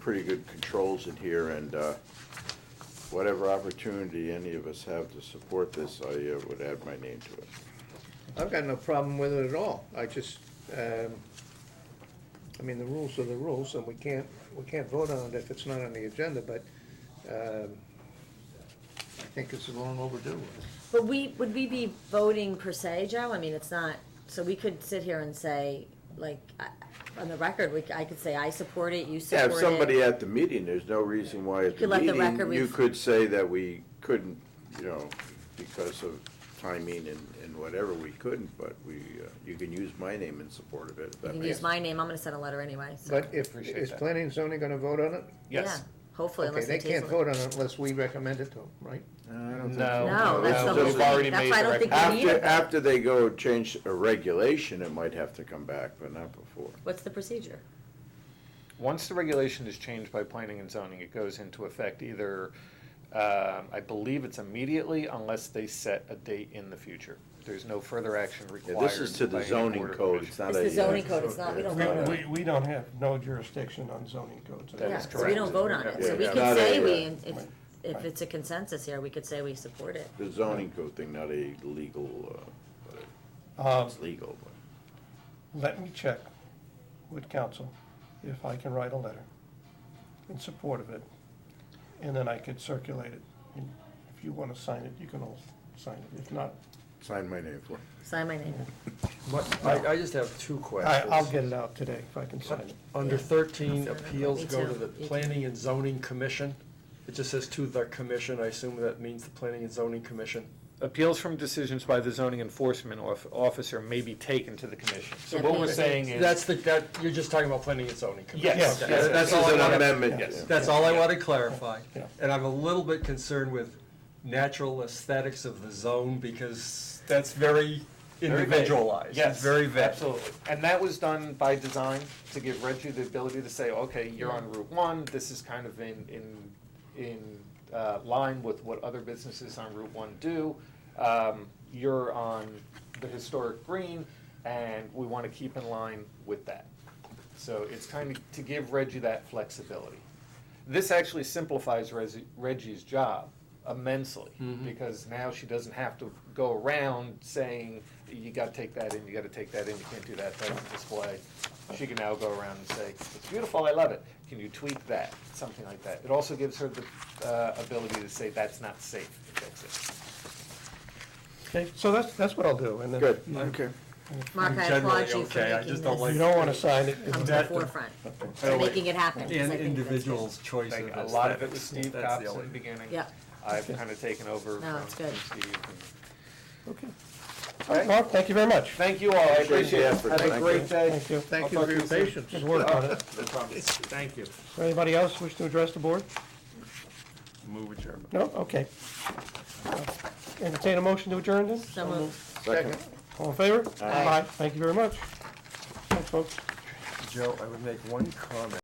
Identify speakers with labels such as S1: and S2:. S1: pretty good controls in here, and uh, whatever opportunity any of us have to support this, I uh, would add my name to it.
S2: I've got no problem with it at all. I just, um, I mean, the rules are the rules, and we can't, we can't vote on it if it's not on the agenda, but um, I think it's long overdue.
S3: But we, would we be voting per se, Joe? I mean, it's not, so we could sit here and say, like, I- on the record, we, c- I could say, I support it, you
S1: Yeah,
S3: support
S1: if
S3: it.
S1: somebody at the meeting, there's no reason why at
S3: You
S1: the
S3: could let the
S1: meeting,
S3: record
S1: you
S3: ref-
S1: could say that we couldn't, you know, because of timing and, and whatever, we couldn't, but we, uh, you can use my name in support of it. if that
S3: You can
S1: makes
S3: use my name, I'm gonna send a letter anyway, so.
S2: But if,
S4: Appreciate
S2: is
S4: that.
S2: planning and zoning gonna vote on it?
S4: Yes.
S3: Yeah, Hopefully,
S2: Okay,
S3: unless they
S2: they
S3: table
S2: can't
S3: it.
S2: vote on it unless we recommend it to them, right?
S1: sense. Uh, I don't think
S4: No.
S3: No, that's the
S1: No,
S3: whole
S1: we've
S3: thing,
S4: already
S3: that's
S4: made
S3: why I
S4: the Ah.
S3: don't think we need
S1: After,
S3: it.
S1: after they go change a regulation, it might have to come back, but not before.
S3: What's the procedure?
S4: Once the regulation is changed by planning and zoning, it goes into effect either, um, I believe it's immediately unless they set a date in the future. There's no further action
S1: Yeah,
S4: required.
S1: this is to the
S4: by any
S1: zoning
S4: board or
S1: code,
S4: commission.
S1: it's not
S3: It's
S1: a.
S3: the zoning
S1: uh,
S3: code, it's not- we don't
S1: it's
S3: vote on
S1: a-
S3: it.
S5: We, we don't have no jurisdiction on zoning codes.
S4: That
S3: Yeah,
S4: is
S3: So we don't
S4: correct.
S3: vote on it, so
S1: Yeah,
S3: we
S1: yeah.
S3: can
S1: Not
S3: say
S1: a,
S3: we,
S1: uh,
S3: if, if it's a consensus here, we could say we support it.
S1: The zoning code thing, not a legal, uh,
S5: Um,
S1: it's legal, but.
S5: Let me check with council if I can write a letter in support of it, and then I could circulate it. And If you want to sign it, you can all sign it. If not,
S1: Sign my name for it.
S3: Sign my name.
S6: I, I just have two
S5: I,
S6: questions.
S5: I'll get it out today if I can sign it.
S6: Under thirteen,
S3: I'll send it.
S6: appeals
S3: Me
S6: go to
S3: too.
S6: the
S3: Me too.
S6: Planning and Zoning Commission. It just says to the commission, I assume that means the Planning and Zoning Commission.
S4: Appeals from decisions by the zoning enforcement of- officer may be taken to the commission. So
S3: Yeah,
S4: what we're
S3: please.
S4: saying is.
S6: That's the, that, you're just talking about Planning and Zoning Commission.
S4: Yes,
S6: Okay.
S4: yes,
S6: That's
S1: This
S6: all
S1: is
S6: I
S1: an
S6: wanted,
S1: amendment.
S4: Yes.
S6: that's all I wanted to clarify.
S5: Yeah.
S6: And I'm a little bit concerned with natural aesthetics of the zone because that's very
S4: Very vague.
S6: individualized.
S4: Yes.
S6: It's very vague.
S4: Absolutely. And that was done by design to give Reggie the ability to say, okay, you're on Route One, this is kind of in, in, in uh, line with what other businesses on Route One do. Um, You're on the historic green, and we want to keep in line with that. So it's kind of to give Reggie that flexibility. This actually simplifies Resi- Reggie's job immensely
S6: Mm-hmm.
S4: because now she doesn't have to go around saying, you got to take that in, you got to take that in, you can't do that, that's a display. She can now go around and say, it's beautiful, I love it. Can you tweak that? Something like that. It also gives her the uh, ability to say, that's not safe. Fix it.
S5: Okay, so that's, that's what I'll do, and then.
S1: Good,
S5: You
S1: okay.
S3: Mark,
S6: I'm
S3: I applaud
S6: generally
S3: you for
S6: okay, I
S3: making
S6: just don't
S5: you
S3: this
S6: like-
S5: don't want to sign it.
S3: come to the
S6: that the-
S3: forefront, for making it happen. 'cause
S6: And
S3: I think that's good.
S6: individuals' choice of
S4: Like, a
S6: aesthetics.
S4: lot of it was Steve
S6: That's
S4: Cox
S6: the
S4: in the
S6: only-
S4: beginning.
S3: Yeah.
S4: I've kind of taken over
S3: No,
S4: from
S3: it's good.
S4: from Steve. and-
S5: Okay. All right, Mark, thank you very much.
S4: Thank you all, I
S1: Appreciate
S4: appreciate
S1: the
S4: it.
S1: effort.
S4: Have a
S1: Thank
S4: great
S1: you.
S4: day.
S5: Thank you.
S4: I'll
S2: Thank you
S4: talk
S2: for
S4: to
S2: your
S4: soon.
S2: patience. Good work on it.
S6: Thank you.
S5: Anybody else wish to address the board?
S6: Move adjournment.
S5: No? Okay. Entertain a motion to adjourn then?
S3: So moved.
S1: Second.
S5: All in favor? Aye. Thank you very much. Thanks, folks.
S6: Joe, I would make one comment.